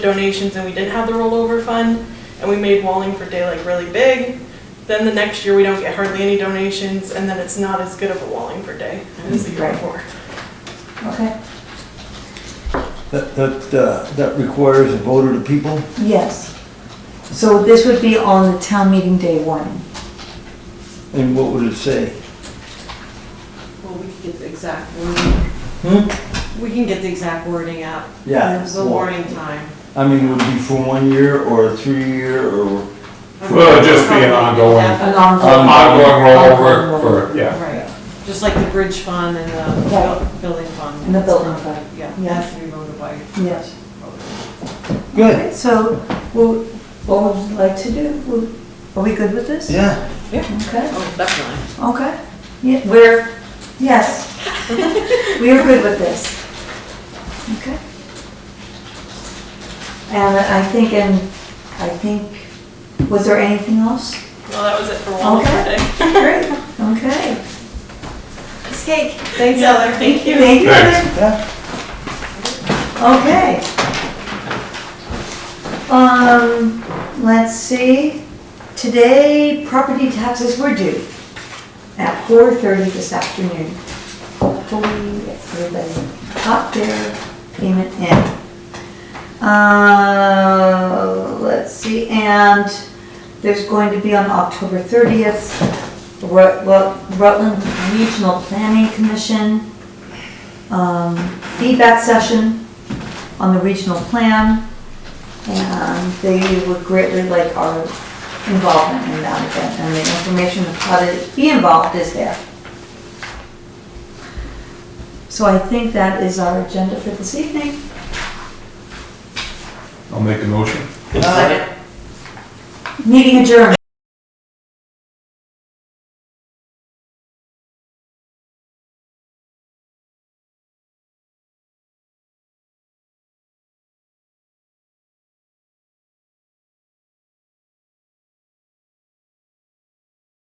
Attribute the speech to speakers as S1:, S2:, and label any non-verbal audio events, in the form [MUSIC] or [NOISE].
S1: donations and we didn't have the rollover fund and we made Wallingford Day like really big. Then the next year we don't get hardly any donations and then it's not as good of a Wallingford Day as the year
S2: Right.
S1: before.
S2: Okay,
S3: That, that, uh, that requires a vote of the people?
S2: yes. So this would be on the town meeting day warning.
S3: And what would it say?
S4: Well, we can get the exact wording.
S3: Hmm?
S4: We can get the exact wording out.
S3: Yeah.
S4: The warning time.
S3: I mean, would it be for one year or a three-year or?
S5: Well, it'd just be an ongoing-
S2: An
S4: Definitely.
S2: ongoing-
S5: Ongoing rollover for, yeah.
S4: Right, just like the bridge fund and the
S2: Right.
S4: buil- building fund.
S2: And the building
S4: It's not-
S2: fund.
S4: Yeah,
S2: Yeah.
S4: that should be voted by.
S2: Yes.
S3: Good.
S2: Okay, So, wha- what would you like to do? Would- Are we good with this?
S3: Yeah.
S2: Okay,
S4: Oh, definitely.
S2: okay. Yeah, we're, yes.
S3: [LAUGHS]
S2: We are good with this. Okay. And I think, and I think, was there anything else?
S1: Well, that was it for Wallingford
S2: Okay.
S1: Day.
S2: Great, okay. It's cake.
S4: Thanks, Heather.
S1: Thank you.
S2: Thank you.
S5: Thanks.
S3: Yeah.
S2: Okay. Um, let's see, today property taxes were due at four thirty this afternoon. Hopefully, everybody got their payment in. Uh, let's see, and there's going to be on October thirtieth, Rut- Rut- Rutland Regional Planning Commission, um, feedback session on the regional plan, and they would greatly like our involvement in that event, and the information of how to be involved is there. So I think that is our agenda for this evening.
S5: I'll make a motion.
S3: Second.
S2: Meeting adjourned.